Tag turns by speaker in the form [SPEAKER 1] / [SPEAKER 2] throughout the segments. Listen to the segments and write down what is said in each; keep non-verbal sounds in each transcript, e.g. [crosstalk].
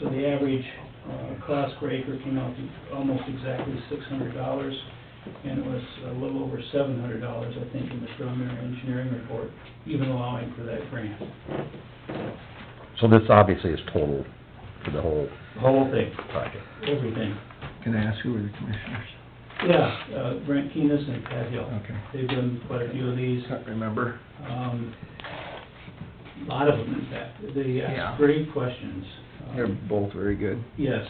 [SPEAKER 1] So the average uh, cost per acre came out to almost exactly six hundred dollars, and it was a little over seven hundred dollars, I think, in the preliminary engineering report, even allowing for that grant,
[SPEAKER 2] So this obviously is total for the whole
[SPEAKER 1] the whole thing,
[SPEAKER 2] project.
[SPEAKER 1] everything.
[SPEAKER 3] Can I ask who were the commissioners?
[SPEAKER 1] Yeah, uh, Brent Keenest and Pat Hill.
[SPEAKER 3] Okay.
[SPEAKER 1] They've done quite a few of these.
[SPEAKER 3] Can't remember.
[SPEAKER 1] Um, A lot of them, in fact. They
[SPEAKER 3] Yeah.
[SPEAKER 1] ask great questions. Um,
[SPEAKER 3] They're both very good.
[SPEAKER 1] Yes,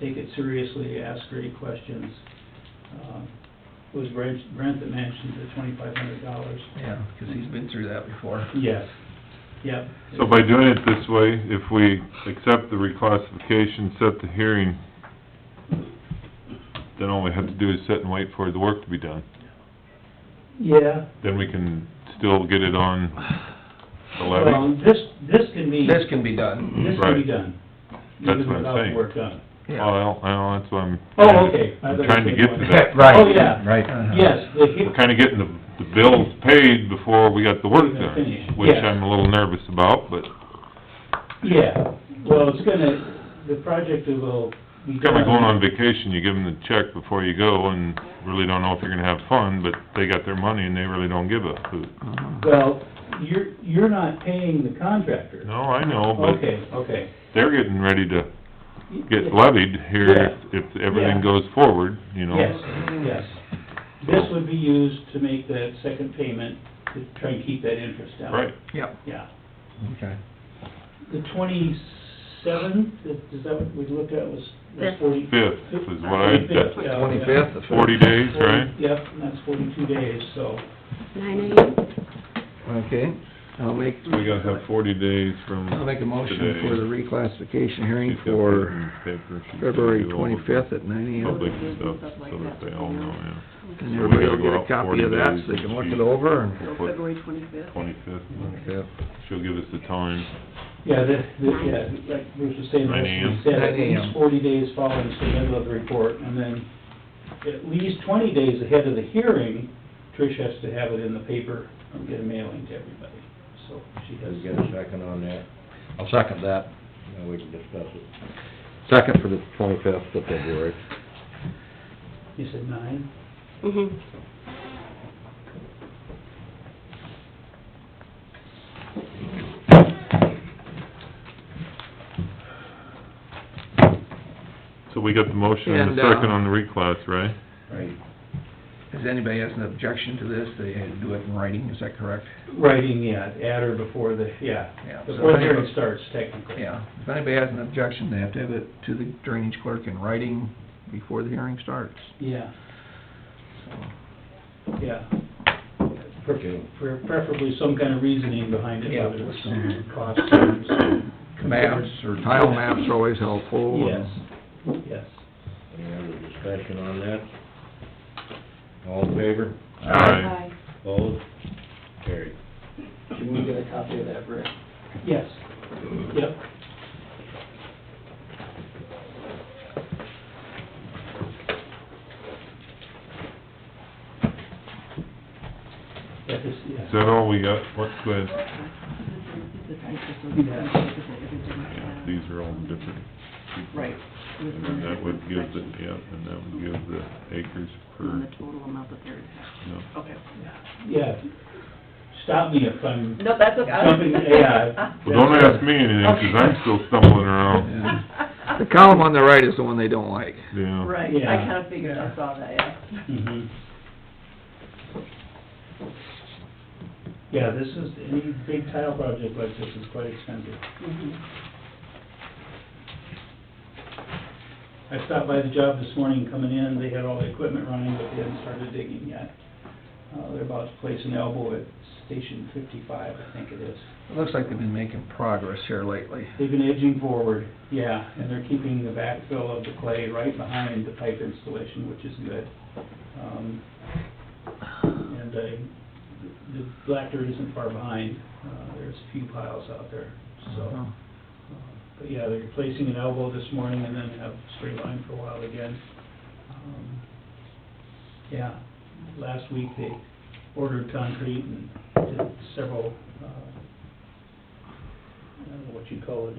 [SPEAKER 1] take it seriously, ask great questions. Um, It was Brent Brent that mentioned the twenty-five hundred dollars.
[SPEAKER 3] Yeah, because he's been through that before.
[SPEAKER 1] Yes, yep.
[SPEAKER 4] So by doing it this way, if we accept the reclassification, set the hearing, then all we have to do is sit and wait for the work to be done.
[SPEAKER 1] Yeah.
[SPEAKER 4] Then we can still get it on the levy.
[SPEAKER 1] Well, this, this can be,
[SPEAKER 3] This
[SPEAKER 1] this
[SPEAKER 3] can be done.
[SPEAKER 1] can be
[SPEAKER 4] Right.
[SPEAKER 1] done. even
[SPEAKER 4] That's what I'm
[SPEAKER 1] without the
[SPEAKER 4] saying.
[SPEAKER 1] work done.
[SPEAKER 3] Yeah.
[SPEAKER 4] Well, well, that's what I'm.
[SPEAKER 1] Oh, okay. I
[SPEAKER 4] I'm
[SPEAKER 1] thought you
[SPEAKER 4] trying to
[SPEAKER 1] said
[SPEAKER 4] get
[SPEAKER 1] one.
[SPEAKER 4] to that.
[SPEAKER 1] Oh, yeah.
[SPEAKER 3] Uh-huh.
[SPEAKER 2] Right.
[SPEAKER 1] Yes, the he-
[SPEAKER 4] We're kinda getting the, the bills paid before we got the work
[SPEAKER 1] Finished,
[SPEAKER 4] done, which
[SPEAKER 1] yes.
[SPEAKER 4] I'm a little nervous about, but
[SPEAKER 1] Yeah, well, it's gonna, the project will be
[SPEAKER 4] Kind
[SPEAKER 1] done-
[SPEAKER 4] of going on vacation, you give them the check before you go and really don't know if you're gonna have fun, but they got their money and they really don't give a hoot.
[SPEAKER 3] Uh-huh.
[SPEAKER 1] Well, you're, you're not paying the contractor.
[SPEAKER 4] No, I know, but
[SPEAKER 1] Okay, okay.
[SPEAKER 4] they're getting ready to get levied here if, if
[SPEAKER 1] Yeah.
[SPEAKER 4] everything goes forward, you know?
[SPEAKER 1] Yes, yes. This would be used to make that second payment, to try and keep that interest down.
[SPEAKER 4] Right,
[SPEAKER 3] Yep.
[SPEAKER 1] Yeah.
[SPEAKER 3] Okay.
[SPEAKER 1] The twenty-seventh, is that what we looked at, was, was
[SPEAKER 5] Fifth.
[SPEAKER 1] forty?
[SPEAKER 4] Fifth is what I-
[SPEAKER 1] Fifth, yeah, yeah.
[SPEAKER 3] Twenty-fifth, the
[SPEAKER 4] forty
[SPEAKER 3] fifth.
[SPEAKER 4] days, right?
[SPEAKER 1] Yep, and that's forty-two days, so,
[SPEAKER 5] Nine AM?
[SPEAKER 3] Okay, I'll make,
[SPEAKER 4] So we gotta have forty days from
[SPEAKER 3] I'll make a motion for the
[SPEAKER 4] today.
[SPEAKER 3] reclassification hearing
[SPEAKER 4] She's got
[SPEAKER 3] for
[SPEAKER 4] paper and paper. She's gotta
[SPEAKER 3] February
[SPEAKER 4] do all the
[SPEAKER 3] twenty-fifth at nine AM.
[SPEAKER 4] Public stuff, so that they all know, yeah.
[SPEAKER 3] And everybody will get a copy of that, so they can look it over and...
[SPEAKER 4] We'll
[SPEAKER 5] So
[SPEAKER 4] put
[SPEAKER 5] February twenty-fifth.
[SPEAKER 4] Twenty-fifth, she'll give us the time.
[SPEAKER 1] yeah, the, the, yeah, like Bruce was saying,
[SPEAKER 4] Nine
[SPEAKER 1] we
[SPEAKER 4] AM.
[SPEAKER 1] said at
[SPEAKER 3] Nine AM.
[SPEAKER 1] least forty days following submission of the report, and then at least twenty days ahead of the hearing, Trish has to have it in the paper and get a mailing to everybody, so she has.
[SPEAKER 6] Does get a second on that?
[SPEAKER 2] I'll second that.
[SPEAKER 6] Now we can discuss it.
[SPEAKER 2] Second for the twenty-fifth of February.
[SPEAKER 1] You said nine?
[SPEAKER 5] Mm-hmm.
[SPEAKER 4] So we got the motion and
[SPEAKER 3] And,
[SPEAKER 4] the
[SPEAKER 3] uh,
[SPEAKER 4] second on the reclass, right?
[SPEAKER 6] Right.
[SPEAKER 3] Does anybody has an objection to this, they had to do it in writing, is that correct?
[SPEAKER 1] Writing, yeah, at or before the, yeah,
[SPEAKER 3] Yeah.
[SPEAKER 1] before the hearing starts technically.
[SPEAKER 3] Yeah, if anybody has an objection, they have to have it to the drainage clerk in writing before the hearing starts,
[SPEAKER 1] Yeah,
[SPEAKER 3] so...
[SPEAKER 1] yeah.
[SPEAKER 6] Okay.
[SPEAKER 1] For preferably some kind of reasoning behind it,
[SPEAKER 3] Yeah.
[SPEAKER 1] whether it's some cost terms.
[SPEAKER 3] [laughs] Maps or tile maps are always helpful.
[SPEAKER 1] Yes,
[SPEAKER 3] and-
[SPEAKER 1] yes.
[SPEAKER 6] Any other discussion on that? All in favor?
[SPEAKER 4] Aye.
[SPEAKER 6] Opposed? Carried.
[SPEAKER 7] Can we get a copy of that, Rick?
[SPEAKER 1] Yes, yep. That is, yeah.
[SPEAKER 4] Is that all we got? What's the, yeah, these are all different. people.
[SPEAKER 7] Right.
[SPEAKER 4] And then that would give the, yeah, and that would give the acres
[SPEAKER 7] And the
[SPEAKER 4] per,
[SPEAKER 7] total amount that they're,
[SPEAKER 4] no.
[SPEAKER 7] okay.
[SPEAKER 1] Yeah, stop me if I'm
[SPEAKER 7] No,
[SPEAKER 1] [laughs]
[SPEAKER 7] that's okay.
[SPEAKER 1] jumping,
[SPEAKER 7] [laughs]
[SPEAKER 1] yeah.
[SPEAKER 4] Well, don't ask me anything, 'cause I'm still stumbling around,
[SPEAKER 3] Yeah. The column on the right is the one they don't like.
[SPEAKER 4] yeah.
[SPEAKER 7] Right, I
[SPEAKER 1] Yeah.
[SPEAKER 7] kinda figured, I saw that, yeah.
[SPEAKER 1] Mhm. Yeah, this is, any big tile project like this is quite expensive. Mm-hmm.
[SPEAKER 7] Mhm.
[SPEAKER 1] I stopped by the job this morning coming in, they had all the equipment running, but they hadn't started digging yet. Uh, they're about to place an elbow at station fifty-five, I think it is.
[SPEAKER 3] It looks like they've been making progress here lately.
[SPEAKER 1] They've been edging forward, yeah, and they're keeping the backfill of the clay right behind the pipe installation, which is good. Um, And I, the black dirt isn't far behind, uh, there's a few piles out there,
[SPEAKER 3] Uh-huh.
[SPEAKER 1] so. uh, But yeah, they're placing an elbow this morning and then have straight line for a while again. Um, Yeah, last week they ordered concrete and did several, uh, I don't know what you call it,